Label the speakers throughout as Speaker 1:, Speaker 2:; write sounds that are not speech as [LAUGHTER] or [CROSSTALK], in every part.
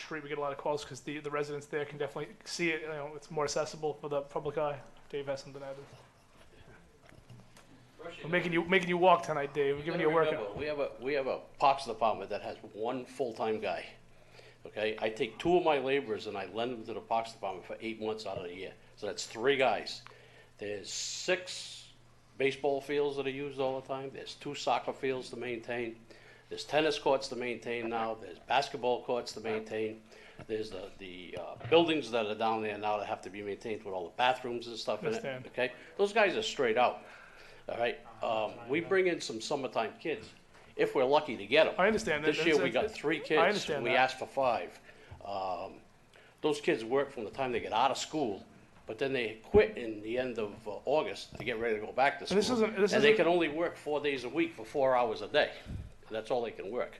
Speaker 1: Shree, we get a lot of calls because the, the residents there can definitely see it. You know, it's more accessible for the public eye. Dave has something to add. We're making you making you walk tonight, Dave. We're giving you a workout.
Speaker 2: Remember, We have a, we have a parks department that has one full-time guy, okay? I take two of my laborers and I lend them to the parks department for eight months out of the year, so that's three guys. There's six baseball fields that are used all the time, there's two soccer fields to maintain, there's tennis courts to maintain now, there's basketball courts to maintain, there's the, the, uh, buildings that are down there now that have to be maintained with all the bathrooms and stuff in it,
Speaker 1: Understand.
Speaker 2: okay? Those guys are straight out. All right, um, we bring in some summertime kids, if we're lucky to get them.
Speaker 1: I understand that.
Speaker 2: This year,
Speaker 1: That's-
Speaker 2: we got three
Speaker 1: I
Speaker 2: kids.
Speaker 1: understand
Speaker 2: We
Speaker 1: that.
Speaker 2: asked for five. Um, those kids work from the time they get out of school, but then they quit in the end of uh, August to get ready to go back to school.
Speaker 1: this isn't- this
Speaker 2: And they
Speaker 1: isn't-
Speaker 2: can only work four days a week for four hours a day. That's all they can work.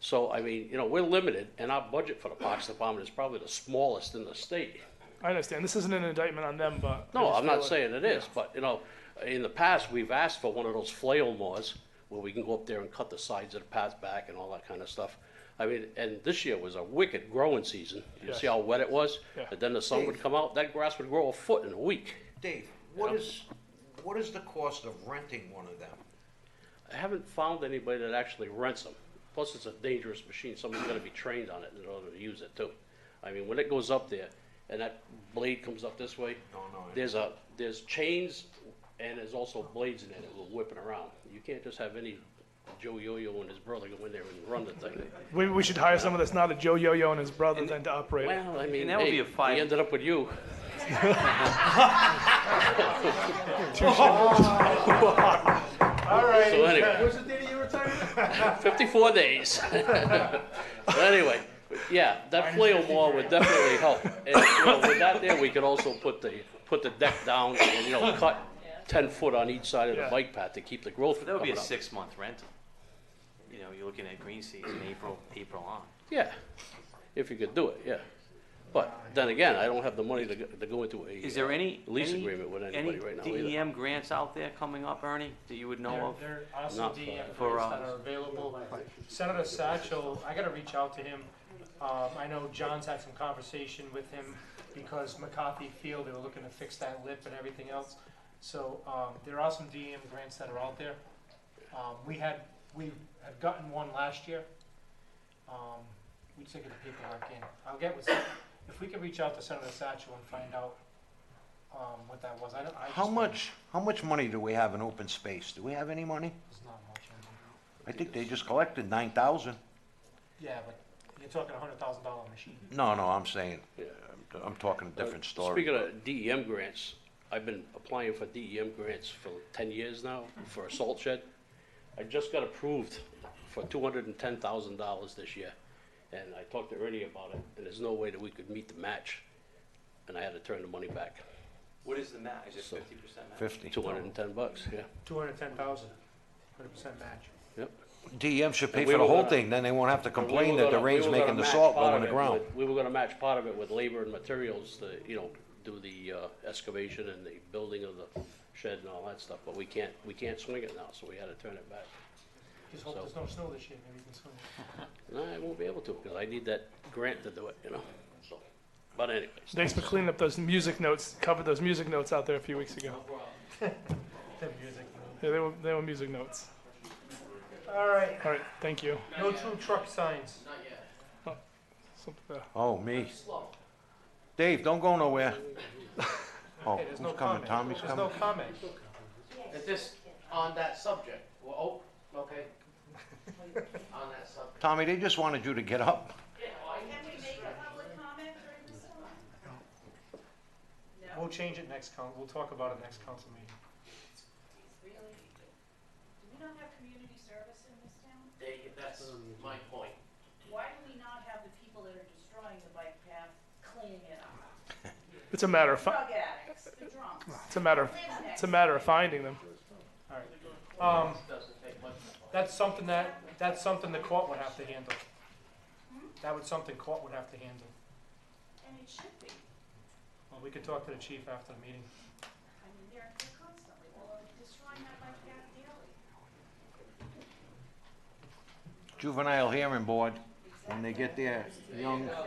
Speaker 2: So, I mean, you know, we're limited, and our budget for the Parks Department is probably the smallest in the state.
Speaker 1: I understand. This isn't an indictment on them, but I
Speaker 2: No,
Speaker 1: just
Speaker 2: I'm
Speaker 1: feel
Speaker 2: not
Speaker 1: like-
Speaker 2: saying it is, but, you know, in the past, we've asked for one of those flail mowers where we can go up there and cut the sides of the path back and all that kind of stuff. I mean, and this year was a wicked growing season. You see how wet it was?
Speaker 1: Yeah.
Speaker 2: And then the sun would come out, that grass would grow a foot in a week.
Speaker 3: Dave, what is, what is the cost of renting one of them?
Speaker 2: I haven't found anybody that actually rents them. Plus, it's a dangerous machine. Someone's gonna be trained on it in order to use it too. I mean, when it goes up there and that blade comes up this way,
Speaker 3: Oh, No, no, I-
Speaker 2: there's a, there's chains and there's also blades in it that will whip it around. You can't just have any Joe Yo-Yo and his brother go in there and run the thing.
Speaker 1: Maybe we should hire someone that's not a Joe Yo-Yo and his brother than to operate it.
Speaker 2: Well, I mean,
Speaker 4: And that would be
Speaker 2: hey,
Speaker 4: a five-
Speaker 2: we ended up with
Speaker 4: [LAUGHS]
Speaker 2: you.
Speaker 1: All right.
Speaker 2: So anyway.
Speaker 5: What's the date of your retirement?
Speaker 1: [LAUGHS]
Speaker 2: 54 days. But anyway, yeah, that flail mall would definitely help. And, you know, with that there, we could also put the, put the deck down and,
Speaker 1: [LAUGHS]
Speaker 2: you know, cut 10 foot on each side of the
Speaker 1: Yeah.
Speaker 2: bike path to keep the growth from
Speaker 4: That would be
Speaker 2: coming
Speaker 4: a
Speaker 2: up.
Speaker 4: six-month rental. You know, you're looking at green season, April, April on.
Speaker 2: Yeah, if you could do it, yeah. But then again, I don't have the money to, go- to go into a.
Speaker 4: Is there
Speaker 2: uh,
Speaker 4: any?
Speaker 2: Lease
Speaker 4: any-
Speaker 2: agreement with
Speaker 4: any
Speaker 2: anybody right now either.
Speaker 4: DEM grants out there coming up, Ernie, that you would know of?
Speaker 6: There there are some
Speaker 2: Not
Speaker 6: DEM grants that
Speaker 4: for uh, us.
Speaker 6: are available. Senator Satchel, I gotta reach out to him. Um, I know John's had some conversation with him because McCarthy Field, they were looking to fix that lip and everything else. So, um, there are some DEM grants that are out there. Um, we had, we had gotten one last year. Um, we took it to people like in. I'll get with, if we could reach out to Senator Satchel and find out, um, what that was. I don't, I just.
Speaker 3: How much, how much money do we have in open space? Do we have any money?
Speaker 6: It's not much. I mean.
Speaker 3: I think they just collected nine thousand.
Speaker 6: Yeah, but you're talking a hundred thousand dollar machine.
Speaker 3: No, no, I'm saying, I'm- I'm talking a different story.
Speaker 2: uh, Speaking of DEM grants, I've been applying for DEM grants for ten years now for a salt shed. I just got approved for two hundred and ten thousand dollars this year, and I talked to Ernie about it, and there's no way that we could meet the match, and I had to turn the money back,
Speaker 4: What is the match? Is it
Speaker 2: So-
Speaker 4: fifty percent match?
Speaker 3: Fifty.
Speaker 2: two hundred and ten bucks, yeah,
Speaker 6: Two hundred ten thousand, hundred percent match.
Speaker 2: yep.
Speaker 3: DEM E should pay
Speaker 2: And we
Speaker 3: for the
Speaker 2: were
Speaker 3: whole
Speaker 2: gonna-
Speaker 3: thing, then they won't have to
Speaker 2: And we
Speaker 3: complain
Speaker 2: were
Speaker 3: that the
Speaker 2: gonna- we
Speaker 3: rain's
Speaker 2: were gonna
Speaker 3: making the
Speaker 2: match
Speaker 3: salt go
Speaker 2: part
Speaker 3: in the
Speaker 2: of it
Speaker 3: ground.
Speaker 2: with- We were gonna match part of it with labor and materials to, you know, do the, uh, excavation and the building of the shed and all that stuff, but we can't, we can't swing it now, so we had to turn it back.
Speaker 6: Just hope there's no snow this year, maybe you can swing it.
Speaker 2: No, I won't be able to, because I need that grant to do it, you know, so, but anyways.
Speaker 1: Thanks for cleaning up those music notes. Covered those music notes out there a few weeks
Speaker 6: [LAUGHS]
Speaker 1: ago.
Speaker 6: The music.
Speaker 1: Yeah, they were they were music notes.
Speaker 6: All right,
Speaker 1: All right, thank you. Oh,
Speaker 6: no true truck signs.
Speaker 1: Something, uh,
Speaker 3: Oh, me. Dave, don't go nowhere. Oh,
Speaker 6: Hey, there's no
Speaker 3: who's coming?
Speaker 6: comment.
Speaker 3: Tommy's
Speaker 6: There's
Speaker 3: coming?
Speaker 6: no comment.
Speaker 7: Is this on that subject? Well, oh, okay. On that subject.
Speaker 3: Tommy, they just wanted you to get up.
Speaker 8: Can we make a public comment during this one?
Speaker 6: We'll change it next coun, we'll talk about it next council meeting.
Speaker 8: It's really, do we not have community service in this town?
Speaker 7: They- That's my point.
Speaker 8: Why do we not have the people that are destroying the bike path cleaning it up?
Speaker 1: it's a matter of fi-
Speaker 8: Drug addicts, the drunks,
Speaker 1: it's a matter of
Speaker 8: live next
Speaker 1: it's a matter of finding them.
Speaker 6: All right, um,
Speaker 7: Doesn't take much.
Speaker 6: that's something that, that's something the court would have to handle. That would something court would have to handle.
Speaker 8: and it should be.
Speaker 6: Well, we could talk to the chief after the meeting.
Speaker 8: I mean, they're, they're constantly, well, they're destroying that bike path daily.
Speaker 3: Juvenile hearing board, when they get their young